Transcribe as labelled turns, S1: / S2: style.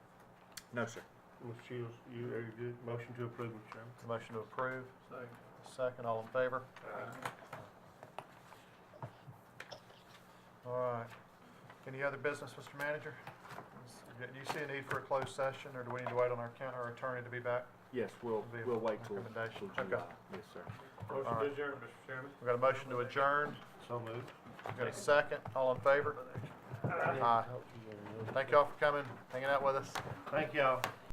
S1: No, sir.
S2: Mr. Shields, you, are you good? Motion to approve, Mr. Chairman.
S3: Motion to approve,
S2: Second.
S3: second, all in favor? All right. Any other business, Mr. Manager? Do you see a need for a closed session, or do we need to wait on our coun- our attorney to be back?
S1: Yes, we'll, we'll wait till, till
S3: Recommendation. Okay.
S1: July. Yes, sir.
S2: Motion to adjourn, Mr. Chairman.
S3: We've got a motion to adjourn,
S2: So moved.
S3: we've got a second, all in favor? Aye. Thank y'all for coming, hanging out with us.
S2: Thank y'all.